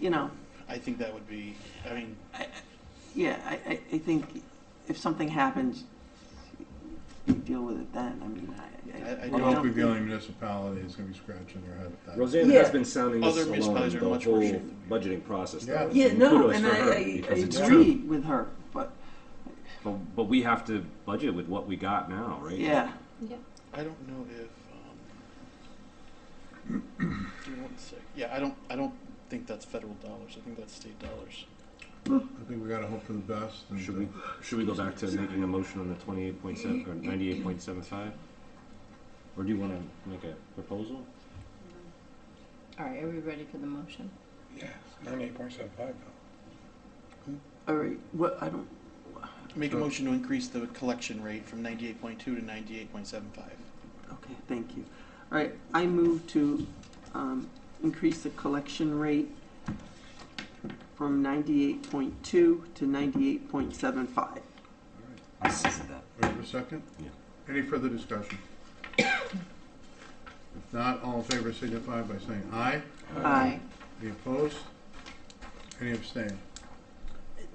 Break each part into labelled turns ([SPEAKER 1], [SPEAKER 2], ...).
[SPEAKER 1] you know,
[SPEAKER 2] I think that would be, I mean,
[SPEAKER 1] yeah, I, I, I think if something happens, you deal with it then, I mean, I-
[SPEAKER 2] I- I
[SPEAKER 1] I.
[SPEAKER 2] don't
[SPEAKER 3] I
[SPEAKER 1] don't
[SPEAKER 3] don't think the
[SPEAKER 1] think-
[SPEAKER 3] only municipality is gonna be scratching their head at that.
[SPEAKER 4] Roseanne
[SPEAKER 1] Yeah.
[SPEAKER 4] has been sounding this
[SPEAKER 2] Other
[SPEAKER 4] along
[SPEAKER 2] municipalities
[SPEAKER 4] the
[SPEAKER 2] are in much worse
[SPEAKER 4] whole
[SPEAKER 2] shape than we are.
[SPEAKER 4] budgeting process.
[SPEAKER 3] Yeah.
[SPEAKER 4] though.
[SPEAKER 1] Yeah, no,
[SPEAKER 4] Kudos
[SPEAKER 1] and
[SPEAKER 4] for
[SPEAKER 1] I,
[SPEAKER 4] her,
[SPEAKER 1] I I
[SPEAKER 4] because it's
[SPEAKER 1] agree
[SPEAKER 4] true.
[SPEAKER 1] with her, but,
[SPEAKER 4] But, but we have to budget with what we got now, right?
[SPEAKER 1] yeah,
[SPEAKER 2] I don't know if, um, give me one sec. Yeah, I don't, I don't think that's federal dollars. I think that's state dollars.
[SPEAKER 3] I think we gotta hope for the best and. uh,
[SPEAKER 4] Should we, should we go back to making a motion on the twenty-eight point seven, or ninety-eight point seven five? Or do you wanna make a proposal?
[SPEAKER 5] All right, are we ready for the motion?
[SPEAKER 6] Yeah, ninety-eight point seven five though.
[SPEAKER 1] all right, what, I don't,
[SPEAKER 2] Make a
[SPEAKER 3] Sure.
[SPEAKER 2] motion to increase the collection rate from ninety-eight point two to ninety-eight point seven five.
[SPEAKER 1] okay, thank you. All right, I move to, um, increase the collection rate from ninety-eight point two to ninety-eight point seven five.
[SPEAKER 4] I second that.
[SPEAKER 3] We have a second?
[SPEAKER 4] Yeah.
[SPEAKER 3] Any further discussion? If not, all in favor signify by saying aye.
[SPEAKER 1] Aye.
[SPEAKER 3] Any opposed? Any abstain?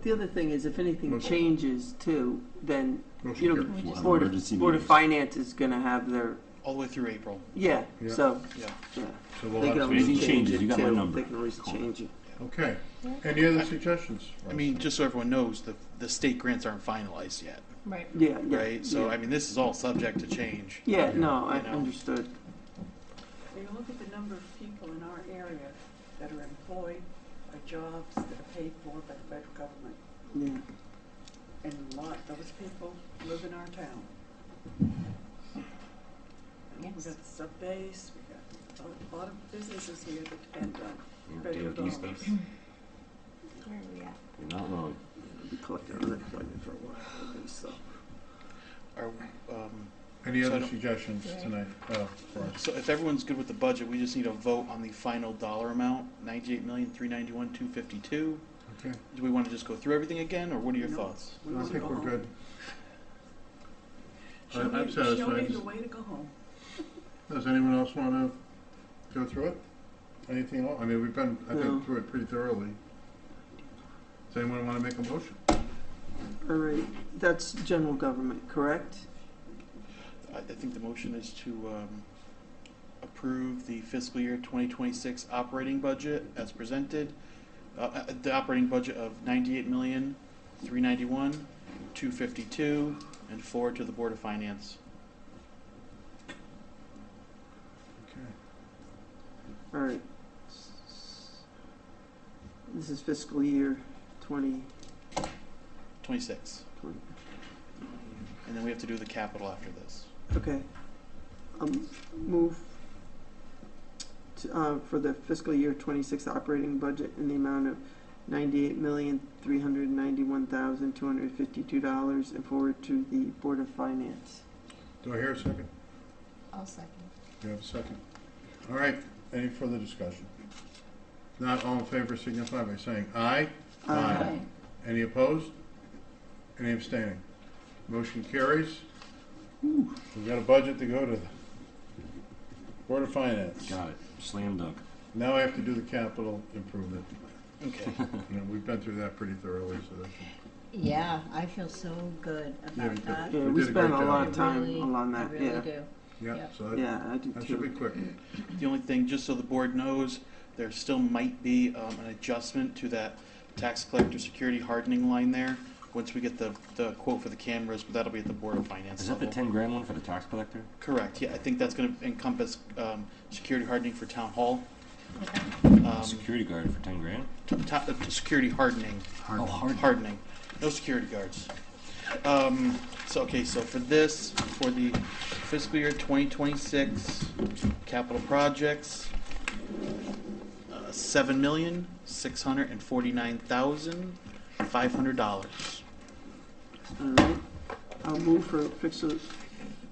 [SPEAKER 1] The other thing is, if anything
[SPEAKER 3] Motion.
[SPEAKER 1] changes too, then,
[SPEAKER 3] Motion
[SPEAKER 1] you
[SPEAKER 3] carries.
[SPEAKER 1] know,
[SPEAKER 4] We'll have
[SPEAKER 1] Board
[SPEAKER 4] emergency
[SPEAKER 1] of, Board of
[SPEAKER 4] meetings.
[SPEAKER 1] Finance is gonna have their,
[SPEAKER 2] All the way through April,
[SPEAKER 1] yeah,
[SPEAKER 3] Yeah.
[SPEAKER 1] so,
[SPEAKER 2] yeah.
[SPEAKER 1] yeah.
[SPEAKER 3] So we'll
[SPEAKER 1] They can
[SPEAKER 3] have to-
[SPEAKER 4] If
[SPEAKER 1] always
[SPEAKER 4] anything
[SPEAKER 1] change
[SPEAKER 4] changes,
[SPEAKER 1] it
[SPEAKER 4] you got my
[SPEAKER 1] too,
[SPEAKER 4] number.
[SPEAKER 1] they can always
[SPEAKER 4] Call
[SPEAKER 1] change it.
[SPEAKER 3] Okay. Any other suggestions?
[SPEAKER 2] I mean, just so everyone knows, the, the state grants aren't finalized yet,
[SPEAKER 5] Right.
[SPEAKER 1] Yeah, yeah.
[SPEAKER 2] right? So,
[SPEAKER 1] yeah.
[SPEAKER 2] I mean, this is all subject to change.
[SPEAKER 1] Yeah, no, I
[SPEAKER 2] You know.
[SPEAKER 1] understood,
[SPEAKER 7] When you look at the number of people in our area that are employed by jobs that are paid for by the federal government,
[SPEAKER 1] yeah.
[SPEAKER 7] and a lot, those people live in our town. We've
[SPEAKER 5] Yes.
[SPEAKER 7] got the sub base, we've got a lot of businesses here that depend on
[SPEAKER 4] You're
[SPEAKER 7] federal
[SPEAKER 4] DOD
[SPEAKER 7] dollars.
[SPEAKER 4] stuff.
[SPEAKER 5] Where are we at?
[SPEAKER 4] You're not wrong.
[SPEAKER 1] We collected unemployment for a while, at least, so.
[SPEAKER 2] Are, um,
[SPEAKER 3] Any
[SPEAKER 2] so I
[SPEAKER 3] other
[SPEAKER 2] don't-
[SPEAKER 3] suggestions tonight, uh, for us?
[SPEAKER 2] So if everyone's good with the budget, we just need a vote on the final dollar amount, ninety-eight million, three ninety-one, two fifty-two.
[SPEAKER 3] Okay,
[SPEAKER 2] Do we want to just go through everything again, or what are your
[SPEAKER 7] No.
[SPEAKER 2] thoughts?
[SPEAKER 7] We
[SPEAKER 3] I
[SPEAKER 7] wanna
[SPEAKER 3] think
[SPEAKER 7] go
[SPEAKER 3] we're
[SPEAKER 7] home.
[SPEAKER 3] good.
[SPEAKER 7] Show
[SPEAKER 3] I'm- I'm
[SPEAKER 7] me- Show
[SPEAKER 3] satisfied.
[SPEAKER 7] me the way to go home.
[SPEAKER 3] Does anyone else wanna go through it? Anything else? I mean, we've been, I
[SPEAKER 1] No.
[SPEAKER 3] think, through it pretty thoroughly. Does anyone wanna make a motion?
[SPEAKER 1] All right, that's general government, correct?
[SPEAKER 2] I, I think the motion is to, um, approve the fiscal year twenty twenty-six operating budget as presented. Uh, Uh, the operating budget of ninety-eight million, three ninety-one, two fifty-two, and forward to the Board of Finance.
[SPEAKER 3] Okay.
[SPEAKER 1] All right. This is fiscal year twenty
[SPEAKER 2] Twenty-six.
[SPEAKER 1] twenty.
[SPEAKER 2] And then we have to do the capital after this.
[SPEAKER 1] Okay. Um, move to, uh, for the fiscal year twenty-six operating budget in the amount of ninety-eight million, three hundred ninety-one thousand, two hundred fifty-two dollars and forward to the Board of Finance.
[SPEAKER 3] Do I hear a second?
[SPEAKER 5] I'll second.
[SPEAKER 3] Do you have a second? All right, any further discussion? If Not all in favor signify by saying aye. Aye. Any opposed? Any abstaining? Motion carries. We've got a budget to go to the Board of Finance.
[SPEAKER 4] Got it. Slam dunk.
[SPEAKER 3] Now I have to do the capital improvement.
[SPEAKER 2] Okay.
[SPEAKER 3] And we've been through that pretty thoroughly, so that should
[SPEAKER 5] Yeah, I feel so good
[SPEAKER 3] Yeah, you
[SPEAKER 5] about
[SPEAKER 3] did.
[SPEAKER 5] that.
[SPEAKER 1] Yeah,
[SPEAKER 3] We
[SPEAKER 1] we
[SPEAKER 3] did a
[SPEAKER 1] spent a
[SPEAKER 3] great
[SPEAKER 1] lot
[SPEAKER 3] job.
[SPEAKER 1] of time
[SPEAKER 5] Really,
[SPEAKER 1] on
[SPEAKER 5] I
[SPEAKER 1] that,
[SPEAKER 5] really
[SPEAKER 1] yeah.
[SPEAKER 5] do.
[SPEAKER 3] Yeah,
[SPEAKER 5] Yeah.
[SPEAKER 3] so that,
[SPEAKER 1] Yeah, I do
[SPEAKER 3] that should be
[SPEAKER 1] too.
[SPEAKER 3] quick.
[SPEAKER 2] The only thing, just so the board knows, there still might be um, an adjustment to that tax collector security hardening line there, once we get the, the quote for the cameras, but that'll be at the Board of Finance
[SPEAKER 4] Is that the
[SPEAKER 2] level.
[SPEAKER 4] ten grand one for the tax collector?
[SPEAKER 2] Correct, yeah, I think that's gonna encompass um, security hardening for town hall. Um,
[SPEAKER 4] Security guard for ten grand?
[SPEAKER 2] t- t- uh, Security hardening.
[SPEAKER 4] Oh, hard.
[SPEAKER 2] hardening. No security guards. Um, so, okay, so for this, for the fiscal year 2026 capital projects, uh, seven million six hundred and forty-nine thousand five hundred dollars.
[SPEAKER 1] All right, I'll move for fiscal,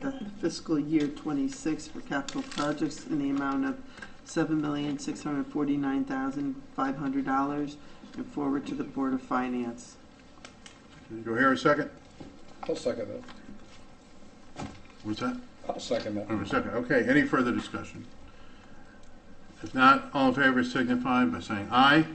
[SPEAKER 1] the fiscal year twenty-six for capital projects in the amount of seven million, six hundred forty-nine thousand, five hundred dollars and forward to the Board of Finance.
[SPEAKER 3] Do I hear a second?
[SPEAKER 6] I'll second that.
[SPEAKER 3] What's that?
[SPEAKER 6] I'll second that.
[SPEAKER 3] I have a second. Okay, any further discussion? If not, all in favor signify by saying aye.